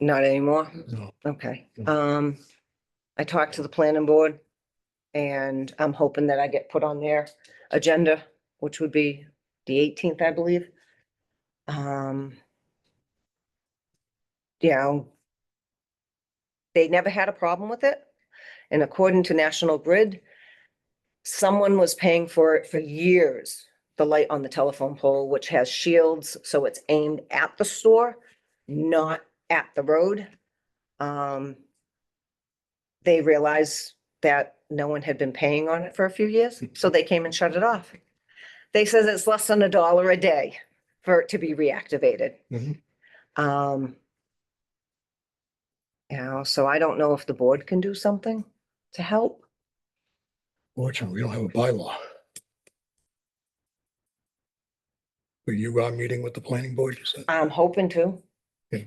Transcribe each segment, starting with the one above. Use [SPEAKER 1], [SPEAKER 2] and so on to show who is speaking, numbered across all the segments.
[SPEAKER 1] Not anymore?
[SPEAKER 2] No.
[SPEAKER 1] Okay,
[SPEAKER 2] No.
[SPEAKER 1] um, I talked to the planning board and I'm hoping that I get put on their agenda, which would be the eighteenth, I believe. Um. Yeah. I'll- They never had a problem with it. And according to National Grid, someone was paying for it for years, the light on the telephone pole, which has shields, so it's aimed at the store, not at the road um, they realized that no one had been paying on it for a few years, so they came and shut it off. They says it's less than a dollar a day for it to be reactivated.
[SPEAKER 2] Mhm.
[SPEAKER 1] Um, you know, so I don't know if the board can do something to help.
[SPEAKER 2] Fortunately, we don't have a bylaw. But you are meeting with the planning board, you said?
[SPEAKER 1] I'm hoping to.
[SPEAKER 2] Yeah.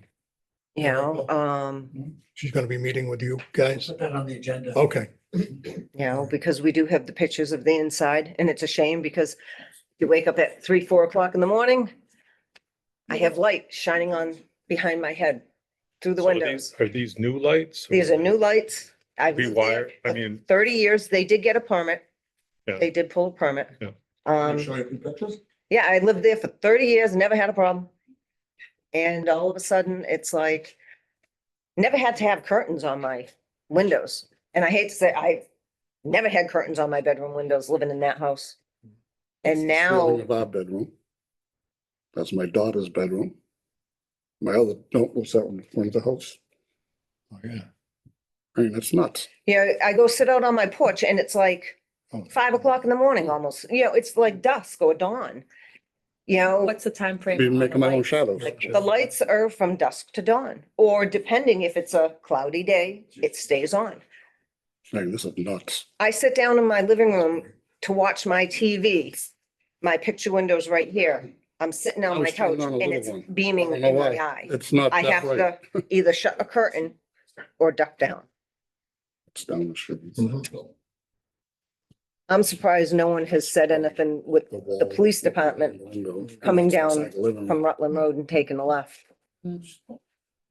[SPEAKER 1] You know, um,
[SPEAKER 2] She's gonna be meeting with you guys?
[SPEAKER 3] Put that on the agenda.
[SPEAKER 2] Okay,
[SPEAKER 1] you know, because we do have the pictures of the inside and it's a shame because you wake up at three, four o'clock in the morning. I have light shining on behind my head through the
[SPEAKER 4] So are
[SPEAKER 1] windows.
[SPEAKER 4] these- Are these new lights?
[SPEAKER 1] These are new lights. I've lived there
[SPEAKER 4] Rewire, I mean,
[SPEAKER 1] for Thirty years, they did get a permit.
[SPEAKER 4] Yeah.
[SPEAKER 1] They did pull a permit.
[SPEAKER 4] Yeah.
[SPEAKER 3] Can I
[SPEAKER 1] Um,
[SPEAKER 3] Show you some pictures.
[SPEAKER 1] yeah, I lived there for thirty years, never had a problem. And all of a sudden, it's like, never had to have curtains on my windows. And I hate to say, I never had curtains on my bedroom windows living in that house. And now,
[SPEAKER 5] ceiling Of our bedroom. That's my daughter's bedroom. My other, don't lose that one, front of the house.
[SPEAKER 2] oh, yeah.
[SPEAKER 5] I mean, it's nuts.
[SPEAKER 1] you know, I go sit out on my porch and it's like
[SPEAKER 2] Oh.
[SPEAKER 1] five o'clock in the morning almost, you know, it's like dusk or dawn. You know,
[SPEAKER 6] What's the timeframe?
[SPEAKER 5] Be
[SPEAKER 6] on the
[SPEAKER 5] making my own
[SPEAKER 6] lights?
[SPEAKER 5] shadows.
[SPEAKER 1] the lights are from dusk to dawn, or depending if it's a cloudy day, it stays on.
[SPEAKER 5] I mean, this is nuts.
[SPEAKER 1] I sit down in my living room to watch my TV. My picture window's right here. I'm sitting on
[SPEAKER 5] I'm
[SPEAKER 1] my couch
[SPEAKER 5] sitting on a
[SPEAKER 1] and
[SPEAKER 5] little
[SPEAKER 1] it's
[SPEAKER 5] one. I
[SPEAKER 1] beaming
[SPEAKER 5] don't know
[SPEAKER 1] in my
[SPEAKER 5] why.
[SPEAKER 1] eye.
[SPEAKER 5] It's not
[SPEAKER 1] I
[SPEAKER 5] that
[SPEAKER 1] have
[SPEAKER 5] way.
[SPEAKER 1] to either shut a curtain or duck down.
[SPEAKER 5] It's down the street.
[SPEAKER 2] Mhm.
[SPEAKER 1] I'm surprised no one has said anything with,
[SPEAKER 5] wall,
[SPEAKER 1] police department
[SPEAKER 5] window,
[SPEAKER 1] coming down
[SPEAKER 5] inside the living
[SPEAKER 1] from
[SPEAKER 5] room.
[SPEAKER 1] Rutland Road and taking a left.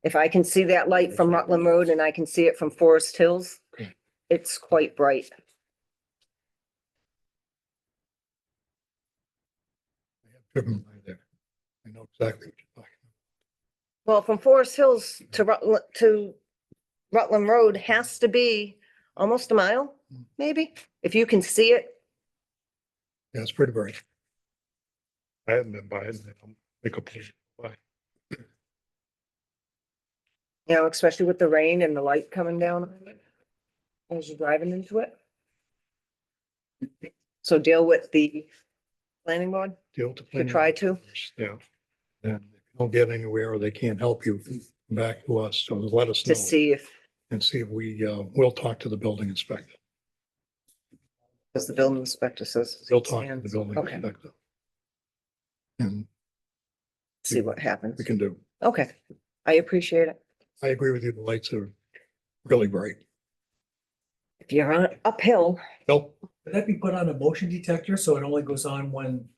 [SPEAKER 1] If I can see that light from Rutland Road and I can see it from Forest Hills,
[SPEAKER 5] Hmm.
[SPEAKER 2] Great.
[SPEAKER 1] it's quite bright.
[SPEAKER 2] I have driven by there. I know exactly what you're talking
[SPEAKER 1] Well, from Forest Hills to Rutland, to Rutland Road has to be almost a mile, maybe, if you can see it.
[SPEAKER 2] about. Yeah, it's pretty bright.
[SPEAKER 4] I haven't been by it. I'll Make a plea.
[SPEAKER 1] You know, especially with the rain and the light coming down on it as you're driving into it. So deal with the planning board
[SPEAKER 2] Deal with the
[SPEAKER 1] to
[SPEAKER 2] planning
[SPEAKER 1] try to.
[SPEAKER 4] Yeah.
[SPEAKER 2] And if you don't get anywhere or they can't help you, come back to us, so let us
[SPEAKER 1] to
[SPEAKER 2] know.
[SPEAKER 1] see if,
[SPEAKER 2] And see if we, uh, we'll talk to the building inspector.
[SPEAKER 1] because the building inspector says.
[SPEAKER 2] We'll talk to
[SPEAKER 1] and
[SPEAKER 2] the building
[SPEAKER 1] Okay.
[SPEAKER 2] inspector. And
[SPEAKER 1] See what happens.
[SPEAKER 2] we can do.
[SPEAKER 1] Okay, I appreciate it.
[SPEAKER 2] I agree with you, the lights are really bright.
[SPEAKER 1] If you're on uphill,
[SPEAKER 2] Bill?
[SPEAKER 3] Could that be put on a motion detector so it only goes on when,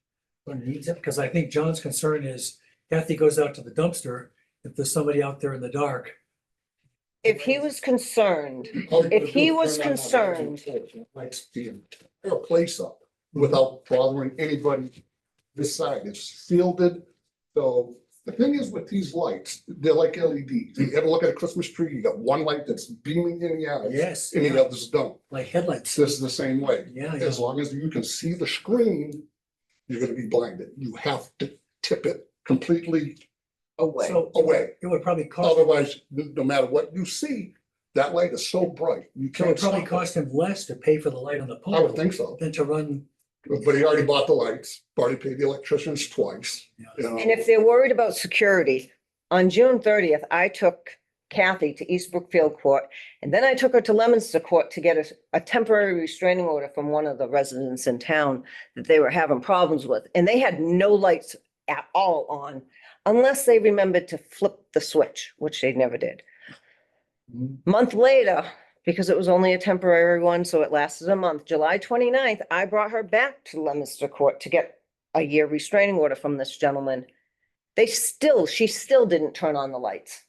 [SPEAKER 3] when it needs it? Because I think John's concern is Kathy goes out to the dumpster, if there's somebody out there in the dark.
[SPEAKER 1] if he was concerned, If he was concerned-
[SPEAKER 5] Lights being, put a place up without bothering anybody this side. It's shielded. So the thing is with these lights, they're like LEDs. You ever look at a Christmas tree, you got one light that's beaming in the eye.
[SPEAKER 3] Yes,
[SPEAKER 5] And the
[SPEAKER 3] yeah,
[SPEAKER 5] others don't.
[SPEAKER 3] like headlights.
[SPEAKER 5] This is the same way.
[SPEAKER 3] Yeah, yeah.
[SPEAKER 5] As long as you can see the screen, you're gonna be blinded. You have to tip it completely
[SPEAKER 1] away.
[SPEAKER 3] So
[SPEAKER 5] away.
[SPEAKER 3] it would probably cost,
[SPEAKER 5] Otherwise, n- no matter what you see, that light is so bright,
[SPEAKER 3] it
[SPEAKER 5] you
[SPEAKER 3] would
[SPEAKER 5] can't
[SPEAKER 3] probably
[SPEAKER 5] stop it.
[SPEAKER 3] cost him less to pay for the light on the
[SPEAKER 5] I
[SPEAKER 3] pole
[SPEAKER 5] would think so,
[SPEAKER 3] than to run.
[SPEAKER 5] but he already bought the lights, already paid the electricians twice, you know.
[SPEAKER 1] And if they're worried about security, on June thirtieth, I took Kathy to East Brookfield Court. And then I took her to Lemonster Court to get a, a temporary restraining order from one of the residents in town that they were having problems with. And they had no lights at all on unless they remembered to flip the switch, which they never did. Month later, because it was only a temporary one, so it lasted a month, July 29th, I brought her back to Lemonster Court to get a year restraining order from this gentleman. They still, she still didn't turn on the lights.